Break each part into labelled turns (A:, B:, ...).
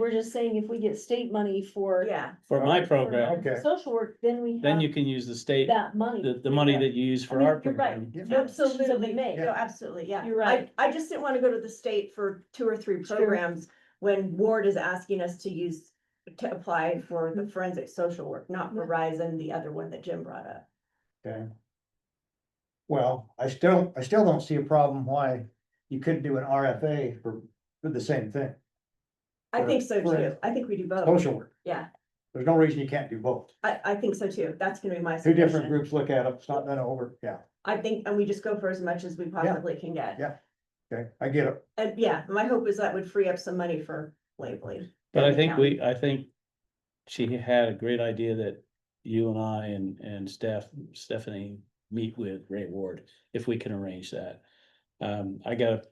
A: We're just saying if we get state money for.
B: Yeah,
C: for my
A: for
C: program,
D: Okay.
A: Social work, then we
C: then you
A: have
C: can use the state,
A: that money.
C: the, the money that you use
A: I
C: for
A: mean,
C: our
A: you're right.
C: program.
A: Yeah.
B: absolutely,
A: may.
B: no, absolutely, yeah.
A: You're right.
B: I, I just didn't wanna go to the state for two or three
A: Sure.
B: programs when Ward is asking us to use, to apply for the forensic social work, not
A: Mm-hmm. Yeah.
B: Verizon, the other one that Jim brought up.
D: Okay. Well, I still, I still don't see a problem why you couldn't do an RFA for, for the same thing,
B: I think so
D: Right.
B: too. I think we do both.
D: social work.
B: Yeah.
D: There's no reason you can't do both.
B: I, I think so too. That's gonna be my
D: Two different
B: suggestion.
D: groups look at it, it's not done over, yeah,
B: I think, and we just go for as much as we possibly can get.
D: Yeah. okay, I get it.
B: And yeah, my hope is that would free up some money for labeling.
C: But I
B: Yeah.
C: think we, I think she had a great idea that you and I and, and Steph, Stephanie meet with Ray Ward, if we can arrange that. Um, I got a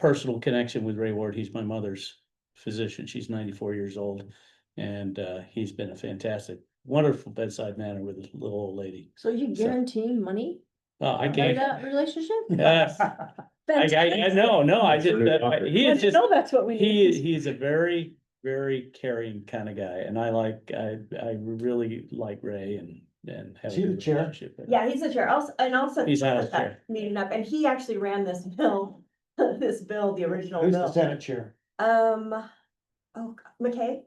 C: personal connection with Ray Ward. He's my mother's physician. She's ninety-four years old. And, uh, he's been a fantastic, wonderful bedside manner with this little old lady.
A: So you
C: So-
A: guaranteeing money
C: Uh, I
A: for
C: can't,
A: that relationship?
C: uh, I, I, I know, no, I just, that- I- he is just.
A: No, that's what we
C: He is,
A: need.
C: he's a very, very caring kind of guy, and I like, I, I really like Ray and, and. have
D: Is
C: a
D: he the
C: good
D: chair?
C: relationship.
B: Yeah, he's the chair. Also, and also.
C: He's out of
B: set that
C: chair.
B: Meeting up, and he actually ran this bill, this bill, the original
D: Who's the
B: bill.
D: Senate chair?
B: Um, oh, God, McKay?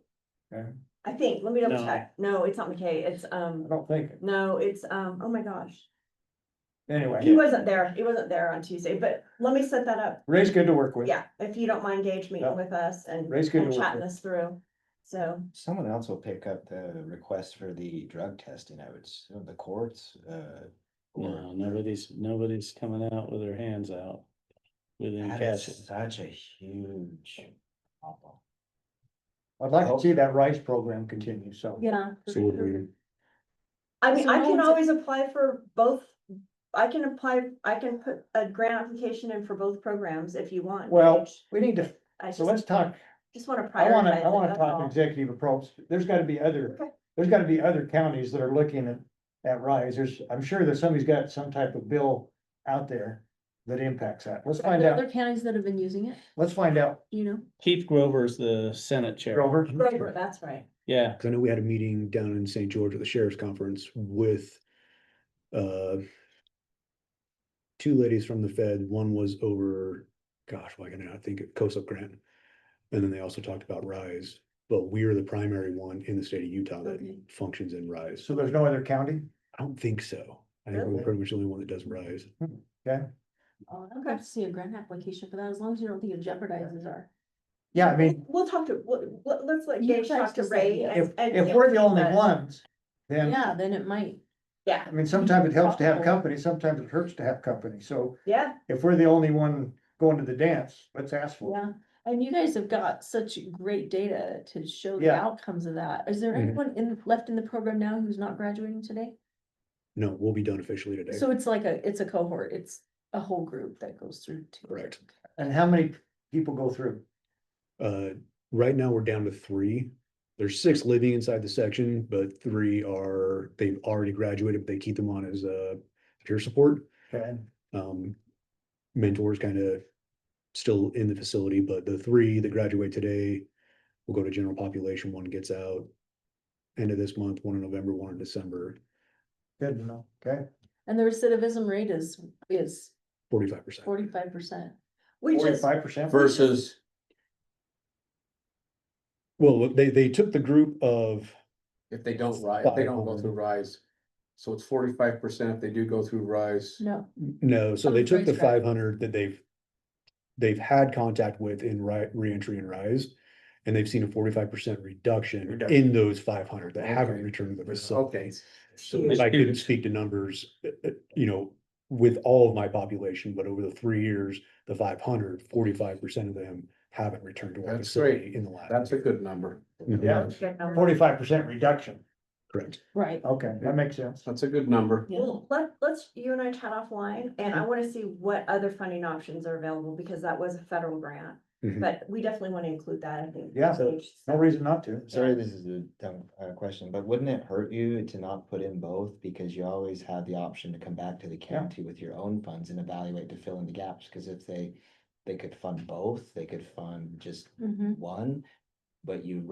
D: Okay.
B: I think, let me double
C: No.
B: check. No, it's not McKay. It's,
D: I
B: um,
D: don't think,
B: no, it's, um, oh my gosh. He
D: anyway,
B: wasn't there. He wasn't there on Tuesday, but let me set that up.
D: Ray's good to work with.
B: Yeah, if you don't mind Gage
D: Yeah.
B: meeting with us and
D: Oh. Ray's good
B: and
D: to work
B: chatting
D: with.
B: this through. So,
E: Someone else will pick up the request for the drug testing, I would, assume, the courts, uh.
C: No,
E: or-
C: nobody's, nobody's coming out with their hands out. Within
E: That
C: cash.
E: is such a huge problem.
D: I'd like to
C: Oh.
D: see that rice program continue, so.
A: Yeah.
B: I mean,
A: So
B: I
A: no
B: can
A: one's-
B: always apply for both. I can apply, I can put a grant application in for both programs if you want.
D: Well,
B: Gage.
D: we need to,
B: I just,
D: so let's talk,
B: just wanna prioritize.
D: I wanna, I
B: it,
D: wanna
B: that's
D: talk
B: all.
D: executive approach, there's gotta be other,
B: Okay.
D: there's gotta be other counties that are looking at, at rise, there's, I'm sure that somebody's got some type of bill out there that impacts that, let's find out,
A: Other counties that have been using it,
D: let's find out,
A: you know?
C: Keith Grover's the Senate Chair,
D: Grover.
B: Right, that's right.
C: yeah,
F: Cause I know we had a meeting down in St. George at the sheriff's conference with uh two ladies from the Fed. One was over, gosh, why can I not think of COSUP grant? And then they also talked about RISE, but we're the primary one in the state of Utah that
A: Okay.
F: functions in RISE.
D: So there's no other county?
F: I don't think so. I think
D: Really?
F: we're pretty much the only one that does RISE.
D: Uh,
A: Oh, I'd love to see a grant application for that, as long as you don't think it jeopardizes our.
D: Yeah, I mean,
B: We'll talk to, we'll- let- let's let
A: You
B: Gage
A: guys
B: talk to
A: decide,
B: Ray.
A: yeah.
D: if,
B: and- and
D: if we're the only
B: but-
D: ones, then,
A: Yeah, then it might.
B: Yeah,
D: I mean, sometimes it helps to have company, sometimes it hurts to have company, so
B: yeah,
D: if we're the only one going to the dance, let's ask for it.
A: Yeah, and you guys have got such great data to show the
D: Yeah.
A: outcomes of that. Is there
F: Mhm.
A: anyone in, left in the program now who's not graduating today?
F: No, we'll be done officially today.
A: So it's like a, it's a cohort, it's a whole group that goes through. to-
F: Correct.
D: And how many people go through?
F: Uh, right now, we're down to three. There's six living inside the section, but three are, they've already graduated, but they keep them on as uh peer support.
D: Okay.
F: Um, mentors kind of still in the facility, but the three that graduate today will go to general population. One gets out end of this month, one in November, one in December,
D: Good to know, okay?
A: And the recidivism rate is, is
F: forty-five percent.
A: forty-five percent.
B: we just,
D: Forty-five percent?
G: versus
F: Well, they, they took the group of,
G: if they don't rise, if they don't go through
F: Five.
G: rise. So it's forty-five percent if they do go through rise.
A: No,
F: no,
G: Oh,
F: so they took the
A: Unfresh grad.
F: five hundred that they've they've had contact with in ri- reentry and rise, and they've seen a forty-five percent reduction
G: Reduction.
F: in those five hundred that haven't
G: Okay.
F: returned to the
G: Okay,
F: facility. So
B: Huge.
F: I couldn't
C: Huge.
F: speak to numbers, uh, uh, you know, with all of my population, but over the three years, the 500, 45 percent of them haven't returned to our
G: That's
F: facility
G: great.
F: in the last.
G: that's a
F: year.
G: good number.
F: Mhm.
D: Yeah, forty-five percent reduction.
F: Correct.
A: right.
D: Okay, that makes sense.
G: That's a good number.
A: Yeah.
B: well, let, let's, you and I chat offline, and I wanna see what other funding options are available, because that was a federal grant.
F: Mhm.
B: But we definitely wanna include that, I think.
D: Mm-hmm. Yeah.
B: Gage,
D: No reason not to.
E: Sorry, this is a dumb uh question, but wouldn't it hurt you to not put in both? Because you always have the option to come back to the county with your own funds and evaluate to fill in the gaps, cause if they. They could fund both, they could fund just
A: Mhm.
E: one, but you